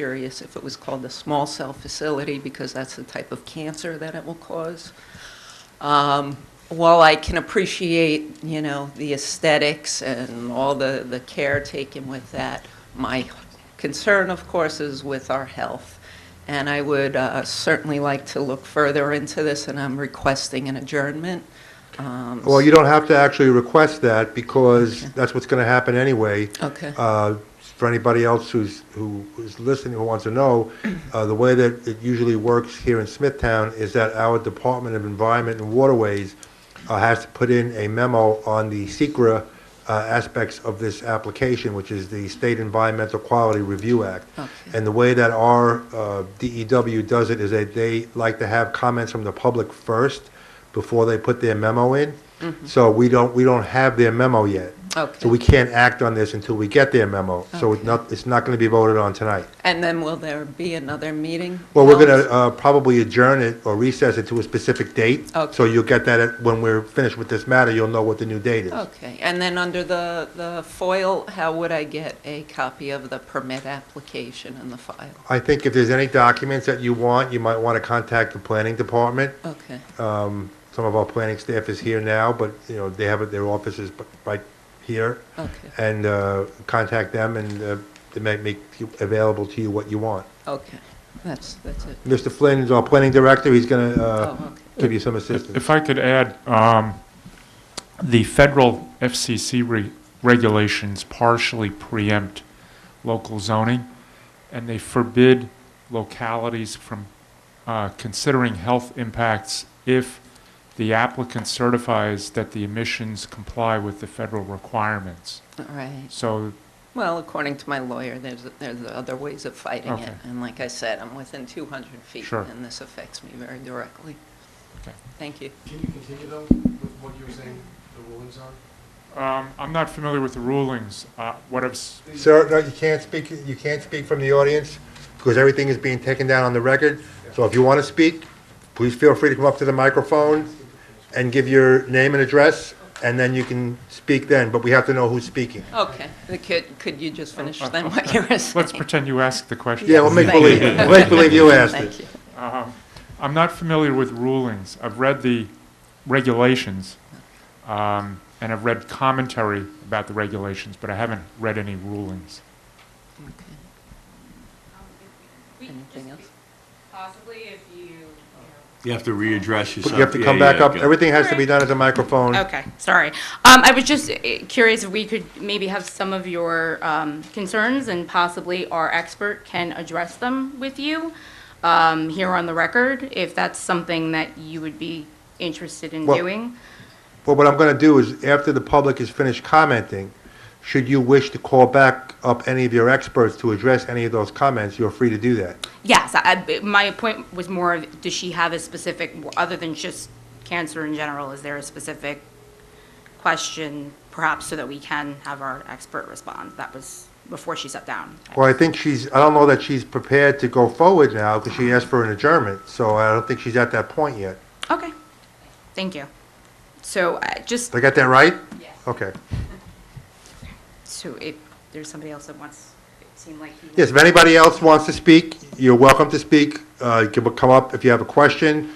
curious if it was called the small cell facility because that's the type of cancer that it will cause. Um, While I can appreciate, you know, the aesthetics and all the, the care taken with that, my concern, of course, is with our health. And I would uh, certainly like to look further into this, and I'm requesting an adjournment. Um, Well, you don't have to actually request that, because that's what's going to happen anyway. Okay. Uh, For anybody else who's, who is listening, who wants to know, uh, the way that it usually works here in Smithtown is that our Department of Environment and Waterways uh, has to put in a memo on the SECRA uh, aspects of this application, which is the State Environmental Quality Review Act. Okay. And the way that our uh, DEW does it is that they like to have comments from the public first before they put their memo in. So we don't, we don't have their memo yet. Okay. So we can't act on this until we get their memo. So it's Okay. not, it's not going to be voted on tonight. And then will there be another meeting? Well, we're going Oh. to probably adjourn it or recess it to a specific date. Okay. So you'll get that at- when we're finished with this matter, you'll know what the new date is. Okay, and then under the, the foil, how would I get a copy of the permit application in the file? I think if there's any documents that you want, you might want to contact the planning department. Okay, Um, Some of our planning staff is here now, but, you know, they have their offices b- right here. okay, And uh, contact them, and uh, they might make you- available to you what you want. okay, that's, that's it. Mr. Flynn is our planning director, he's going Oh, to okay. give you some assistance. If I could add, um, the federal FCC re- regulations partially preempt local zoning, and they forbid localities from uh, considering health impacts if the applicant certifies that the emissions comply with the federal requirements. All right. So Well, according to my lawyer, there's, there's other ways of fighting it. Okay. And like I said, I'm within 200 feet. Sure. And this affects me very directly. Okay. Thank you. Can you continue though with what you were saying the rulings are? um, I'm not familiar with the rulings. Uh, What I've, s- Sir, no, you can't speak, you can't speak from the audience, because everything is being taken down on the record. So if you want to speak, please feel free to come up to the microphone and give your name and address, and then you can speak then, but we have to know who's speaking. Okay, The kid- could you just finish Oh, then what you were saying? let's pretend you asked the question. Yeah, we'll make Thank believe, you. we'll make believe you asked Thank it. you. Um, I'm not familiar with rulings. I've read the regulations, um, and I've read commentary about the regulations, but I haven't read any rulings. Okay. We could just Anything be- else? Possibly if you, you know, You have to readdress But yourself. You have to Yeah, come back yeah, up, go. everything has to be done at the microphone. Okay, sorry. Um, I was just uh, curious if we could maybe have some of your, um, concerns and possibly our expert can address them with you, um, here on the record, if that's something that you would be interested in Well- doing. But what I'm going to do is, after the public has finished commenting, should you wish to call back up any of your experts to address any of those comments, you're free to do that. Yes, I, I- my point was more, of, does she have a specific, other than just cancer in general, is there a specific question perhaps so that we can have our expert respond? That was before she sat down. Well, I think she's, I don't know that she's prepared to go forward now because she asked for an adjournment, so I don't think she's at that point yet. Okay, thank you. So uh, just, Did I get that right? Yes. Okay. so if there's somebody else that wants, it seemed like he. Yes, if anybody else wants to speak, you're welcome to speak. Uh, You can come up if you have a question,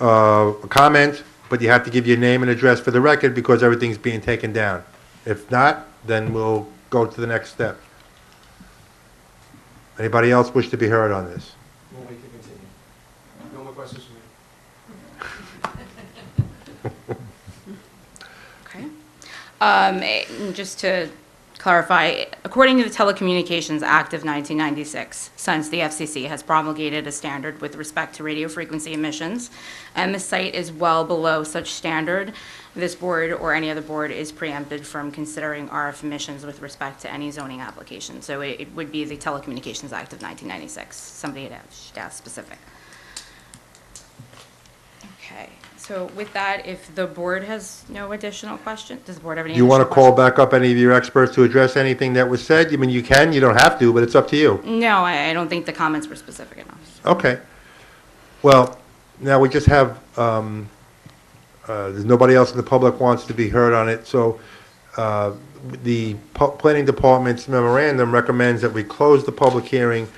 uh, a comment, but you have to give your name and address for the record because everything's being taken down. If not, then we'll go to the next step. Anybody else wish to be heard on this? We'll make it continue. No more questions from me. Okay. Um, eh, Just to clarify, according to the Telecommunications Act of 1996, since the FCC has promulgated a standard with respect to radio frequency emissions, and the site is well below such standard, this board or any other board is preempted from considering RF emissions with respect to any zoning application. So it it would be the Telecommunications Act of 1996. Somebody had asked- asked specific. Okay, so with that, if the board has no additional questions, does the board have any You want to additional call back up any of your experts to address anything that was said? I mean, you can, you don't have to, but it's up to you. questions? No, I, I don't think the comments were specific enough. Okay. Well, now we just have, um, uh, there's nobody else in the public wants to be heard on it, so uh, the pu- Planning Department's memorandum recommends that we close the public hearing